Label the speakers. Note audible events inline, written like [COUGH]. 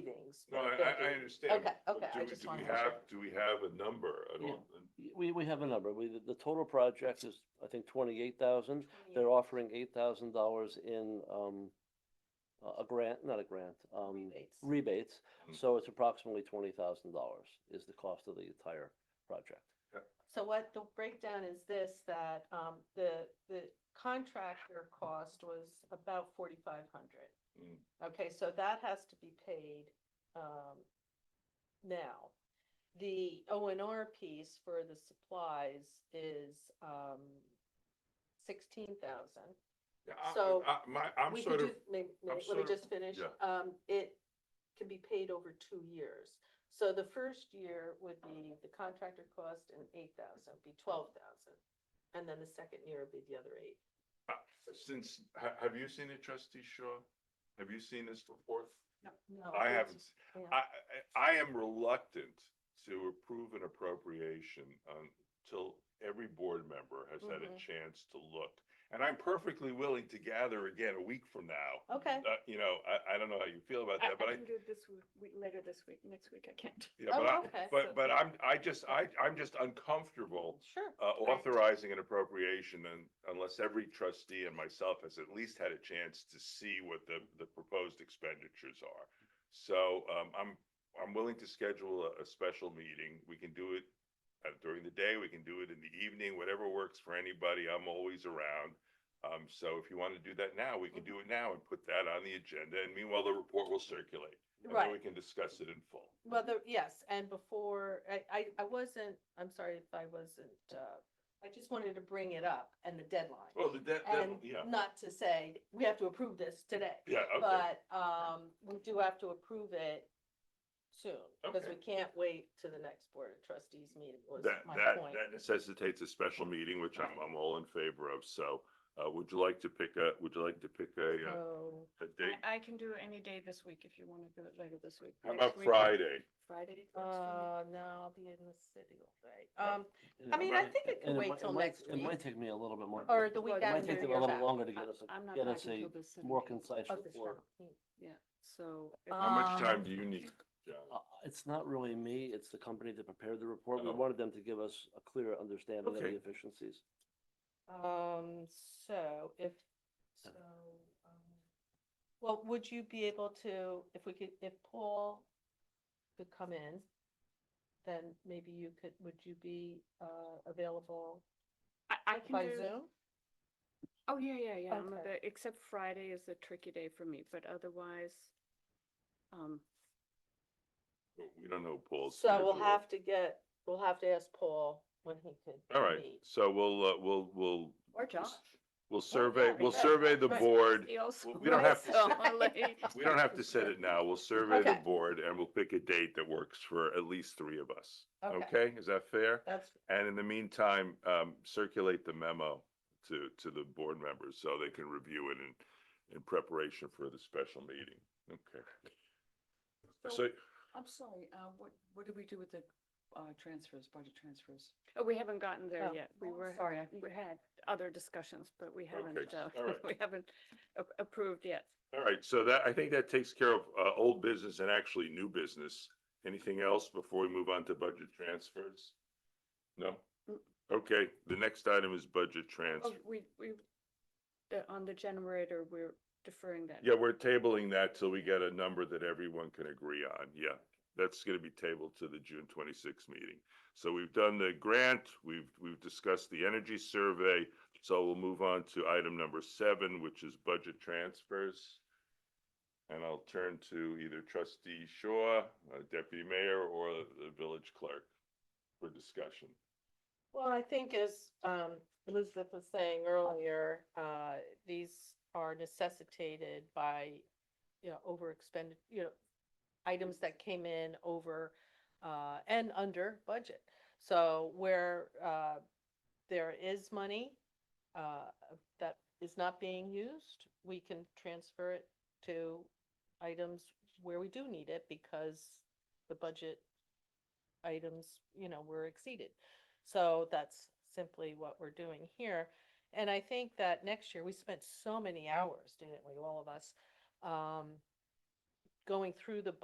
Speaker 1: savings.
Speaker 2: No, I, I- I understand.
Speaker 1: Okay,
Speaker 2: but
Speaker 1: okay, I
Speaker 2: do we-
Speaker 1: just
Speaker 2: do
Speaker 1: wanted
Speaker 2: we
Speaker 1: to make sure.
Speaker 2: have- Do we have a number? I don't,
Speaker 3: We, we have a number. We, the- the total project is, I think, twenty-eight thousand. They're offering eight thousand dollars in, um, a- a grant, not a grant, um,
Speaker 1: Rebates.
Speaker 3: rebates.
Speaker 2: Mm.
Speaker 3: So it's approximately twenty thousand dollars is the cost of the entire project.
Speaker 1: So what the breakdown is this, that, um, the, the contractor cost was about forty-five hundred.
Speaker 2: Mm.
Speaker 1: Okay, so that has to be paid, um, now. The O and R piece for the supplies is, um, sixteen thousand.
Speaker 2: Yeah, I-
Speaker 1: So,
Speaker 2: I, my, I'm
Speaker 1: We
Speaker 2: sort
Speaker 1: could
Speaker 2: of,
Speaker 1: just, may- may- let
Speaker 2: I'm
Speaker 1: me
Speaker 2: sort of-
Speaker 1: just finish.
Speaker 2: yeah.
Speaker 1: Um, it can be paid over two years. So the first year would be the contractor cost and eight thousand, be twelve thousand. And then the second year would be the other eight.
Speaker 2: uh, since, ha- have you seen it, trustee Shaw? Have you seen this report?
Speaker 1: No,
Speaker 2: I
Speaker 1: Oh, it's-
Speaker 2: haven't, s-
Speaker 1: yeah.
Speaker 2: I, I, I am reluctant to approve an appropriation until every board member has had a
Speaker 1: Mhm.
Speaker 2: chance to look. And I'm perfectly willing to gather again a week from now.
Speaker 1: Okay,
Speaker 2: Uh, you know, I, I don't know how you feel about
Speaker 4: I,
Speaker 2: that, but
Speaker 4: I
Speaker 2: I,
Speaker 4: can do it this week, week- later this week, next week, I can't.
Speaker 2: yeah,
Speaker 1: Oh,
Speaker 2: [LAUGHS] but I,
Speaker 1: okay.
Speaker 2: but, but I'm, I just, I, I'm just uncomfortable
Speaker 1: sure.
Speaker 2: uh, authorizing an appropriation and unless every trustee and myself has at least had a chance to see what the, the proposed expenditures are. So, um, I'm, I'm willing to schedule a, a special meeting. We can do it uh, during the day, we can do it in the evening, whatever works for anybody. I'm always around. Um, so if you want to do that now, we
Speaker 1: Mm-hmm.
Speaker 2: can do it now and put that on the agenda. And meanwhile, the report will circulate. And then we
Speaker 1: Right.
Speaker 2: can discuss it in full.
Speaker 1: Well, the, yes, and before, I, I, I wasn't, I'm sorry if I wasn't, uh, I just wanted to bring it up and the deadline.
Speaker 2: Well, Oh, the debt,
Speaker 1: And
Speaker 2: yeah,
Speaker 1: not to say, we have to approve this today.
Speaker 2: yeah, okay.
Speaker 1: But, um, we do have to approve it soon, because we can't wait to the next Board of Trustees meeting was
Speaker 2: That,
Speaker 1: my
Speaker 2: that,
Speaker 1: point.
Speaker 2: that necessitates a special meeting, which I'm, I'm all in favor of, so, uh, would you like to pick a, would you like to pick a, uh,
Speaker 1: So,
Speaker 2: a date?
Speaker 4: I, I can do any day this week if you want to do it later this week.
Speaker 2: How
Speaker 4: Next
Speaker 2: about
Speaker 4: week, uh,
Speaker 2: Friday?
Speaker 4: Friday. works for
Speaker 1: uh, no, I'll be in the city all day.
Speaker 2: Oh.
Speaker 1: Um,
Speaker 3: And
Speaker 1: I
Speaker 3: it
Speaker 1: mean,
Speaker 3: might-
Speaker 1: I think it can
Speaker 3: and
Speaker 1: wait
Speaker 3: might-
Speaker 1: till
Speaker 3: might-
Speaker 1: next
Speaker 3: It might
Speaker 1: week,
Speaker 3: take me a little bit more.
Speaker 1: or the week
Speaker 4: Well,
Speaker 3: It
Speaker 4: it might
Speaker 1: after.
Speaker 3: might take
Speaker 4: after
Speaker 3: them
Speaker 4: you're
Speaker 3: a little
Speaker 4: back.
Speaker 3: longer to
Speaker 4: me.
Speaker 3: get us,
Speaker 4: I- I'm
Speaker 3: a-
Speaker 4: not
Speaker 3: get
Speaker 4: back
Speaker 3: us a
Speaker 4: until the
Speaker 3: more
Speaker 4: 17th,
Speaker 3: concise
Speaker 1: Of the
Speaker 3: report.
Speaker 1: 17th.
Speaker 4: Yeah, so. if-
Speaker 2: How much
Speaker 1: Um,
Speaker 2: time do you need? John?
Speaker 3: Uh, It's not really me, it's the company that prepared the report. We
Speaker 2: Oh.
Speaker 3: wanted them to give us a clearer understanding of
Speaker 2: Okay.
Speaker 3: the efficiencies.
Speaker 1: Um, so if, so, um, well, would you be able to, if we could, if Paul could come in, then maybe you could, would you be, uh, available
Speaker 4: I, I can
Speaker 1: by
Speaker 4: do,
Speaker 1: Zoom?
Speaker 4: oh, yeah, yeah, yeah, I'm
Speaker 1: Okay.
Speaker 4: avai- except Friday is a tricky day for me, but otherwise, um,
Speaker 2: We don't know Paul's.
Speaker 1: So we'll
Speaker 2: schedule.
Speaker 1: have to get, we'll have to ask Paul when he could.
Speaker 2: All right,
Speaker 1: meet.
Speaker 2: so we'll, uh, we'll, we'll,
Speaker 4: or Josh.
Speaker 2: we'll survey,
Speaker 1: yeah,
Speaker 2: we'll
Speaker 1: right,
Speaker 2: survey the
Speaker 1: right.
Speaker 2: board.
Speaker 4: He also
Speaker 2: we don't have to
Speaker 4: writes
Speaker 2: sit-
Speaker 4: so late.
Speaker 2: We don't have to set it now. We'll survey the
Speaker 1: Okay.
Speaker 2: board and we'll pick a date that works for at least three of us.
Speaker 1: Okay.
Speaker 2: Okay, is that fair?
Speaker 1: That's,
Speaker 2: And in the meantime, um, circulate the memo to, to the board members so they can review it in, in preparation for the special meeting. Okay. [LAUGHS]
Speaker 4: Oh.
Speaker 2: So,
Speaker 5: I'm sorry, uh, what, what did we do with the, uh, transfers, budget transfers?
Speaker 4: Oh, We haven't gotten there
Speaker 1: Oh,
Speaker 4: yet. We
Speaker 5: oh, I'm
Speaker 4: were,
Speaker 5: sorry, I-
Speaker 4: we had other discussions, but we haven't, uh,
Speaker 2: all right.
Speaker 4: [LAUGHS] we haven't a- approved yet.
Speaker 2: all right, so that, I think that takes care of, uh, old business and actually new business. Anything else before we move on to budget transfers? No? Okay, the next item is budget
Speaker 4: Oh,
Speaker 2: transfer.
Speaker 4: we, we, the- on the generator, we're deferring that.
Speaker 2: Yeah, we're tabling that till we get a number that everyone can agree on. Yeah. That's gonna be tabled to the June twenty-sixth meeting. So we've done the grant, we've, we've discussed the energy survey. So we'll move on to item number seven, which is budget transfers. And I'll turn to either trustee Shaw, uh, deputy mayor, or the village clerk for discussion.
Speaker 1: well, I think as, um, Elizabeth was saying earlier, uh, these are necessitated by, you know, over expended, you know, items that came in over, uh, and under budget. So where, uh, there is money, uh, that is not being used, we can transfer it to items where we do need it because the budget items, you know, were exceeded. So that's simply what we're doing here. And I think that next year, we spent so many hours, didn't we, all of us, um, going through the